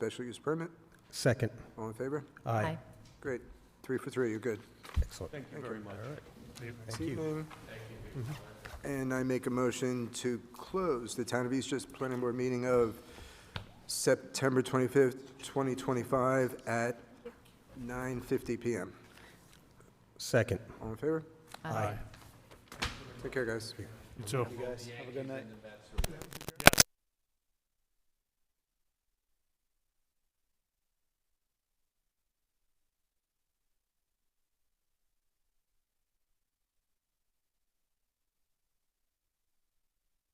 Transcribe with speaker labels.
Speaker 1: Special use permit?
Speaker 2: Second.
Speaker 1: All in favor?
Speaker 2: Aye.
Speaker 1: Great. Three for three, you're good.
Speaker 2: Excellent. Thank you very much. Thank you.
Speaker 1: Evening. Mm-hmm. And I make a motion to close the Town of Eastchester Planning Board meeting of September 25th, 2025 at 9:50 PM.
Speaker 2: Second.
Speaker 1: All in favor?
Speaker 2: Aye.
Speaker 1: Take care, guys.
Speaker 3: So,
Speaker 4: Have a good night.